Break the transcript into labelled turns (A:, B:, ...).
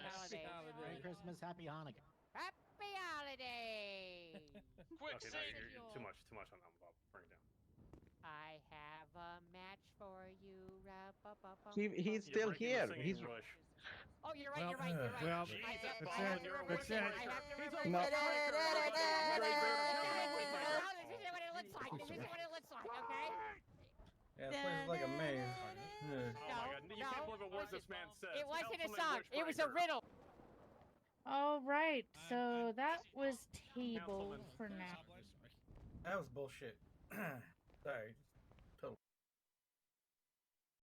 A: Christmas, happy Hanukkah.
B: Happy holidays!
C: Quick,
D: Okay, now
C: sing.
D: you're, you're too
B: Yo.
D: much, too much on that one, Bob. Bring it down.
B: I have a match for you. Ra-ba-ba-bum.
E: He, he's
D: You're
E: still
D: breaking the singing
E: here. He's
D: rush.
B: Oh, you're right.
F: Well,
B: you're right. You're right.
F: well,
B: Oh, I
D: Jesus,
B: have to
D: Bob,
B: remember
F: you're a
B: what it-
F: witch.
B: I have to
F: He's a
B: remember
E: witch.
B: what it-
D: No.
B: This isn't what it looks like. This isn't what it looks like. Okay.
G: Yeah, it plays like a maze. Yeah.
D: Oh my God! You
B: no,
D: can't believe a word
B: wasn't.
D: this man said.
B: It wasn't a song. It was a riddle.
H: All right,
F: I'm-
H: so
F: I'm
H: that
F: busy.
H: was tabled
D: Councilman.
H: for now.
G: That was bullshit. Sorry.